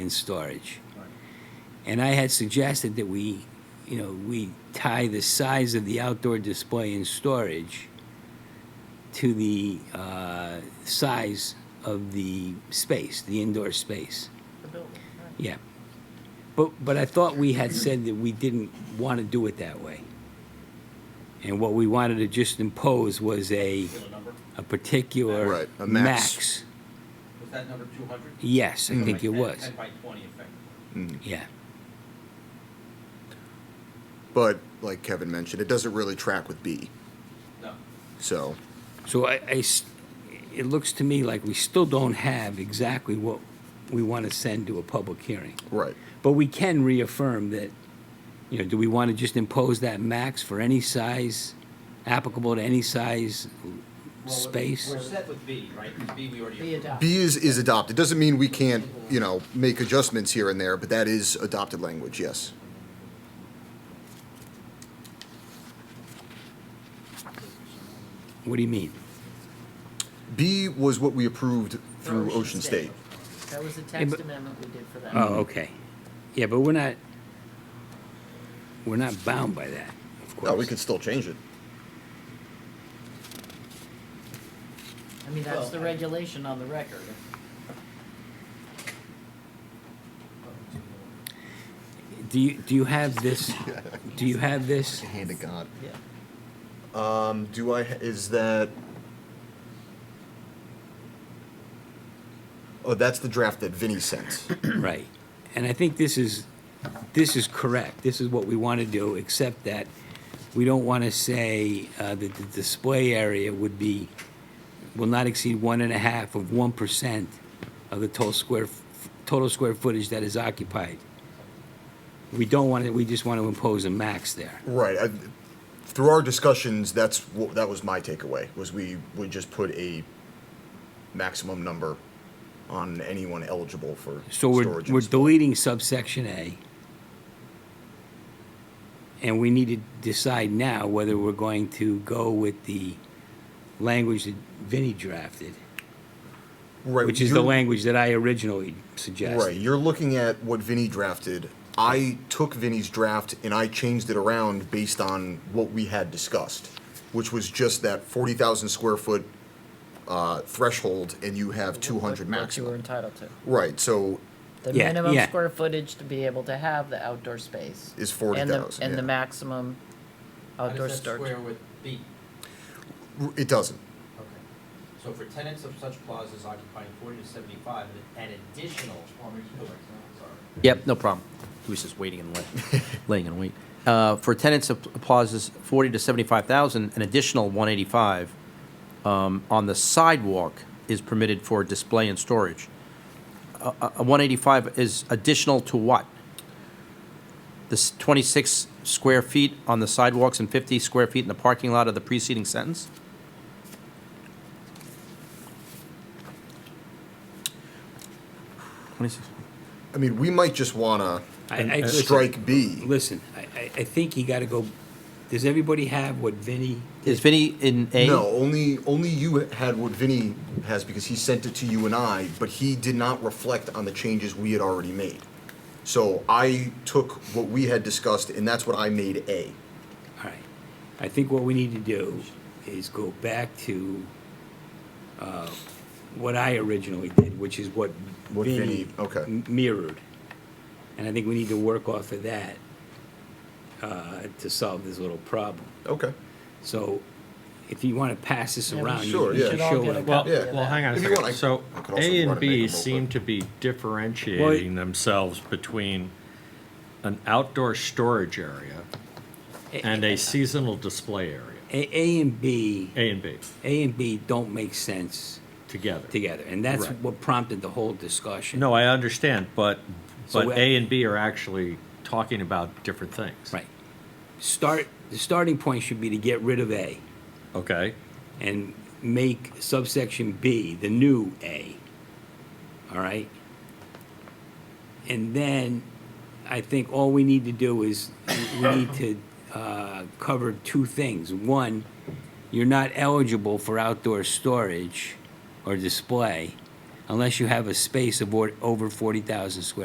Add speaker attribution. Speaker 1: and storage. And I had suggested that we, you know, we tie the size of the outdoor display and storage to the uh, size of the space, the indoor space.
Speaker 2: the building, right?
Speaker 1: Yeah. But, but I thought we had said that we didn't want to do it that way. And what we wanted to just impose was a, a particular
Speaker 3: Right, a
Speaker 1: max.
Speaker 3: max.
Speaker 4: Was that number two hundred?
Speaker 1: Yes,
Speaker 3: Mm.
Speaker 1: I think it was.
Speaker 4: Ten by twenty effectively.
Speaker 1: Yeah.
Speaker 3: But like Kevin mentioned, it doesn't really track with B.
Speaker 4: No.
Speaker 3: So
Speaker 1: So I, I s- it looks to me like we still don't have exactly what we want to send to a public hearing.
Speaker 3: right,
Speaker 1: But we can reaffirm that, you know, do we want to just impose that max for any size, applicable to any size
Speaker 4: Well,
Speaker 1: space?
Speaker 4: We're set with B, right? B we already.
Speaker 2: Be
Speaker 4: approved.
Speaker 2: adopted.
Speaker 3: B is is adopted. Doesn't mean we can't you know make adjustments here and there, but that is adopted language. Yes.
Speaker 1: What do you mean?
Speaker 3: B was what we approved through Ocean State.
Speaker 2: That was the
Speaker 1: but-
Speaker 2: text amendment we did for that.
Speaker 1: Oh, okay. Yeah, but we're not, we're not bound by that, of course.
Speaker 3: No, we could still change it.
Speaker 2: I mean, that's
Speaker 4: Well,
Speaker 2: the
Speaker 4: I-
Speaker 2: regulation on the record.
Speaker 1: Do you, do you have this, do you have this?
Speaker 3: Hand of God.
Speaker 2: Yeah.
Speaker 3: Um, do I? Is that? Oh, that's the draft that Vinny sent.
Speaker 1: Right. And I think this is, this is correct. This is what we want to do, except that we don't want to say uh, that the display area would be, will not exceed one and a half of one percent of the total square, f- total square footage that is occupied. We don't want to, we just want to impose a max there.
Speaker 3: Right. I, through our discussions, that's what, that was my takeaway was we would just put a maximum number on anyone eligible for
Speaker 1: So we're,
Speaker 3: storage. and
Speaker 1: we're
Speaker 3: display.
Speaker 1: deleting subsection A. And we need to decide now whether we're going to go with the language that Vinnie drafted,
Speaker 3: right,
Speaker 1: which is the
Speaker 3: you're-
Speaker 1: language that I originally
Speaker 3: Right.
Speaker 1: suggested.
Speaker 3: You're looking at what Vinny drafted. I took Vinny's draft and I changed it around based on what we had discussed, which was just that forty thousand square foot uh, threshold, and you have two hundred
Speaker 2: What- What you were
Speaker 3: maximum.
Speaker 2: entitled to.
Speaker 3: Right. So
Speaker 2: The
Speaker 1: Yeah,
Speaker 2: minimum
Speaker 1: yeah.
Speaker 2: square footage to be able to have the outdoor space.
Speaker 3: Is
Speaker 2: and the-
Speaker 3: 40,000,
Speaker 2: And the
Speaker 3: yeah.
Speaker 2: maximum
Speaker 4: How
Speaker 2: outdoor
Speaker 4: does that square
Speaker 2: storage.
Speaker 4: with B?
Speaker 3: r- it doesn't.
Speaker 4: Okay. So for tenants of such clauses occupying forty to seventy-five, an an additional. oh, Sorry.
Speaker 5: Yep, no problem. He was just waiting and laying, laying in wait. Uh, for tenants of plazas forty to seventy-five thousand, an additional one eighty-five um, on the sidewalk is permitted for display and storage. Uh, uh, one eighty-five is additional to what? This twenty-six square feet on the sidewalks and fifty square feet in the parking lot of the preceding sentence. Twenty-six.
Speaker 3: I mean, we might just wanna
Speaker 1: I- I-
Speaker 3: strike B.
Speaker 1: Listen, I, I, I think you gotta go, does everybody have what Vinnie?
Speaker 5: Is Vinny in A?
Speaker 3: No, only only you had what Vinny has because he sent it to you and I, but he did not reflect on the changes we had already made. So I took what we had discussed, and that's what I made A.
Speaker 1: All right. I think what we need to do is go back to, uh, what I originally did, which is what
Speaker 3: What
Speaker 1: Vinnie
Speaker 3: Vinnie- okay.
Speaker 1: m- mirrored. And I think we need to work off of that, uh, to solve this little problem.
Speaker 3: Okay.
Speaker 1: So if you wanna pass this
Speaker 2: Yeah, we
Speaker 1: around, you
Speaker 3: Sure,
Speaker 1: you
Speaker 3: yeah.
Speaker 1: should
Speaker 3: Should
Speaker 2: all
Speaker 1: show
Speaker 2: get a
Speaker 1: it.
Speaker 6: Well,
Speaker 2: Yeah.
Speaker 6: well, hang on a
Speaker 3: If you want,
Speaker 6: second.
Speaker 3: I-
Speaker 6: So
Speaker 3: I could also
Speaker 6: A
Speaker 3: run
Speaker 6: and
Speaker 3: and make
Speaker 6: B
Speaker 3: them real
Speaker 6: seem
Speaker 3: quick.
Speaker 6: to be differentiating themselves between an outdoor storage area and a seasonal display area,
Speaker 1: A, A and B,
Speaker 6: A and B,
Speaker 1: A and B don't make sense
Speaker 6: together.
Speaker 1: together, and that's
Speaker 6: Right.
Speaker 1: what prompted the whole discussion.
Speaker 6: No, I understand, but,
Speaker 1: So
Speaker 6: but
Speaker 1: we-
Speaker 6: A and B are actually talking about different things.
Speaker 1: Right. Start, the starting point should be to get rid of A.
Speaker 6: Okay,
Speaker 1: and make subsection B the new A. All right? And then I think all we need to do is we need to uh, cover two things. One, you're not eligible for outdoor storage or display unless you have a space of or- over 40,000 square